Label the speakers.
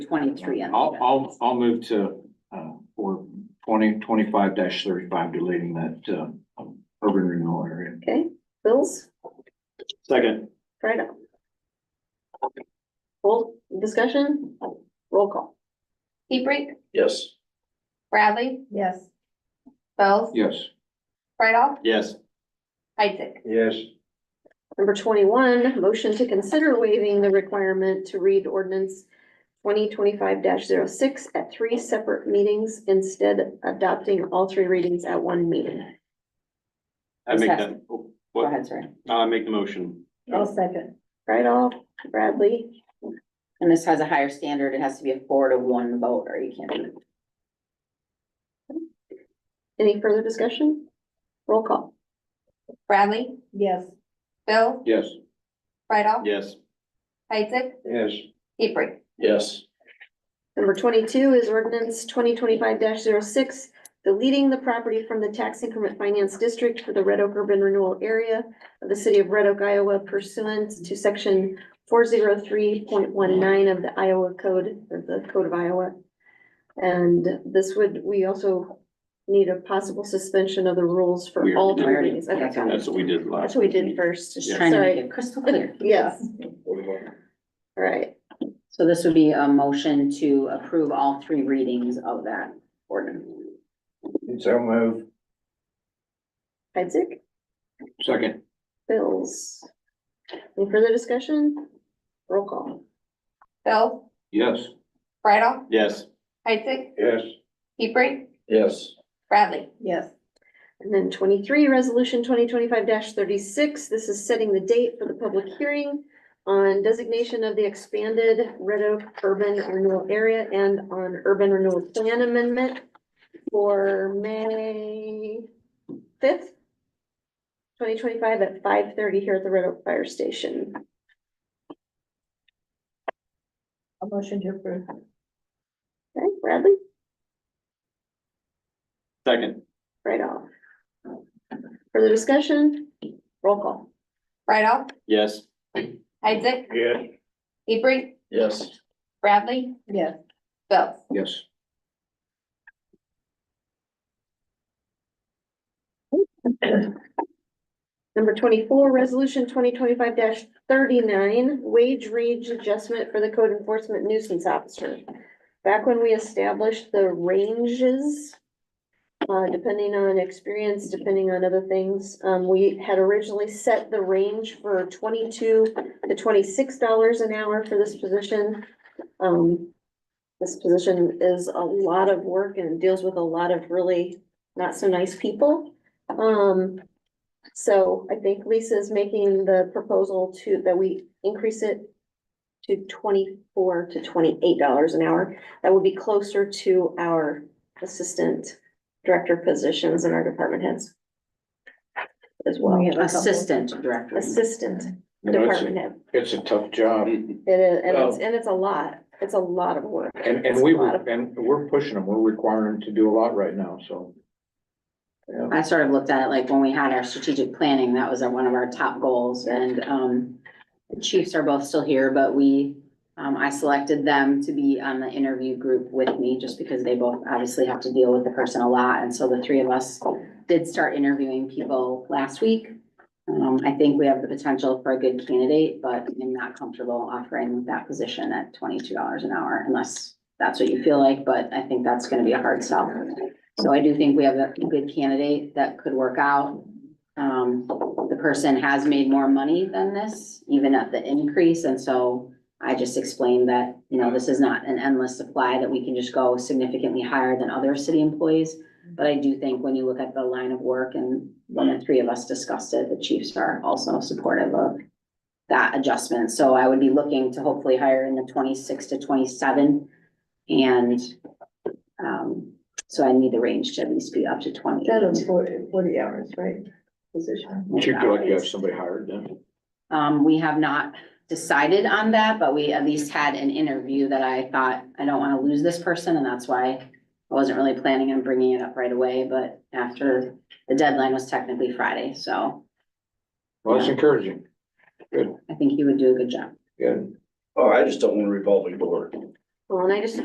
Speaker 1: twenty-three. on the
Speaker 2: I'll,
Speaker 1: agenda.
Speaker 2: I'll, I'll move to, uh, for twenty, twenty-five thirty-five, deleting that, um, um, urban renewal area.
Speaker 1: Okay, Bills,
Speaker 2: Second.
Speaker 1: right up. Full discussion, roll call.
Speaker 3: Hebrink,
Speaker 2: Yes.
Speaker 3: Bradley,
Speaker 4: yes,
Speaker 3: Bells,
Speaker 2: Yes.
Speaker 3: right off,
Speaker 2: Yes.
Speaker 3: Isaac.
Speaker 2: Yes.
Speaker 1: Number twenty-one, motion to consider waiving the requirement to read ordinance twenty twenty-five 6 at three separate meetings, instead adopting all three readings at one meeting.
Speaker 5: I make
Speaker 1: Discuss.
Speaker 5: that, oh,
Speaker 1: Go
Speaker 5: what,
Speaker 1: ahead, sorry.
Speaker 5: I make the motion.
Speaker 4: I'll second,
Speaker 1: Right off, Bradley,
Speaker 6: And this has a higher standard. It has to be a four to one vote or you can't do it.
Speaker 1: any further discussion? Roll call.
Speaker 3: Bradley,
Speaker 4: yes,
Speaker 3: Bill,
Speaker 2: Yes.
Speaker 3: right off,
Speaker 5: Yes,
Speaker 3: Isaac,
Speaker 2: Yes.
Speaker 3: Hebrink.
Speaker 2: Yes.
Speaker 1: Number twenty-two is ordinance twenty twenty-five 6 deleting the property from the tax increment finance district for the Red Oak Urban Renewal Area of the city of Red Oak, Iowa pursuant to section four zero three point one nine of the Iowa Code, or the Code of Iowa. And this would, we also need a possible suspension of the rules for
Speaker 5: We
Speaker 1: all
Speaker 5: already
Speaker 1: three
Speaker 6: did.
Speaker 1: readings. Okay, got it.
Speaker 5: that's what we did
Speaker 1: That's
Speaker 5: last.
Speaker 1: what we did first.
Speaker 6: Just
Speaker 5: Yeah.
Speaker 6: trying to make
Speaker 1: Sorry.
Speaker 6: it crystal clear.
Speaker 1: Yes, all right.
Speaker 6: So this would be a motion to approve all three readings of that ordinance.
Speaker 2: So move.
Speaker 1: Isaac,
Speaker 2: Second.
Speaker 1: Bills. Any further discussion? Roll call.
Speaker 3: Bill,
Speaker 2: Yes.
Speaker 3: right off,
Speaker 5: Yes,
Speaker 3: Isaac,
Speaker 2: Yes.
Speaker 3: Hebrink,
Speaker 2: Yes.
Speaker 3: Bradley.
Speaker 4: yes,
Speaker 1: And then twenty-three, resolution twenty twenty-five thirty-six, this is setting the date for the public hearing on designation of the expanded Red Oak Urban Renewal Area and on Urban Renewal Plan Amendment for May fifth, twenty twenty-five at five thirty here at the Red Oak Fire Station.
Speaker 4: a motion to approve,
Speaker 1: Okay, Bradley,
Speaker 5: second,
Speaker 1: right off. Further discussion? Roll call.
Speaker 3: Right off,
Speaker 5: yes,
Speaker 3: Isaac,
Speaker 2: Yes.
Speaker 3: Hebrink,
Speaker 2: Yes.
Speaker 3: Bradley,
Speaker 4: yes,
Speaker 3: Bill.
Speaker 2: Yes.
Speaker 1: Number twenty-four, resolution twenty twenty-five thirty-nine, wage range adjustment for the code enforcement nuisance officer. Back when we established the ranges, uh, depending on experience, depending on other things, um, we had originally set the range for twenty-two to twenty-six dollars an hour for this position. Um, this position is a lot of work and deals with a lot of really not so nice people. Um, so I think Lisa is making the proposal to, that we increase it to twenty-four to twenty-eight dollars an hour. That would be closer to our assistant director positions and our department heads. As well,
Speaker 4: We have a couple.
Speaker 6: Assistant director.
Speaker 1: assistant
Speaker 2: You know, it's,
Speaker 1: department
Speaker 2: a-
Speaker 1: head.
Speaker 2: it's a tough job
Speaker 1: It is, and it's, and it's a lot. It's a lot of work.
Speaker 2: and,
Speaker 1: It's
Speaker 2: and
Speaker 1: a
Speaker 2: we,
Speaker 1: lot
Speaker 2: were
Speaker 1: of-
Speaker 2: and we're pushing them. We're requiring them to do a lot right now, so. Yeah.
Speaker 6: I sort of looked at it like when we had our strategic planning, that was our- one of our top goals and, um, the chiefs are both still here, but we, um, I selected them to be on the interview group with me just because they both obviously have to deal with the person a lot. And so the three of us did start interviewing people last week. Um, I think we have the potential for a good candidate, but I'm not comfortable offering that position at twenty-two dollars an hour unless that's what you feel like, but I think that's gonna be a hard sell. So I do think we have a good candidate that could work out. Um, the person has made more money than this, even at the increase, and so I just explained that, you know, this is not an endless supply that we can just go significantly higher than other city employees. But I do think when you look at the line of work and when the three of us discussed it, the chiefs are also supportive of that adjustment. So I would be looking to hopefully hire in the twenty-six to twenty-seven. And, um, so I need the range to at least be up to twenty.
Speaker 4: that is forty, forty hours, right? Position,
Speaker 2: Would you feel like you have somebody hired then?
Speaker 6: Um, we have not decided on that, but we at least had an interview that I thought, I don't want to lose this person, and that's why I wasn't really planning on bringing it up right away, but after the deadline was technically Friday, so
Speaker 2: Well, that's encouraging.
Speaker 6: I think he would do a good job.
Speaker 2: Good.
Speaker 7: Oh, I just don't want a revolving door.
Speaker 1: Well, and I just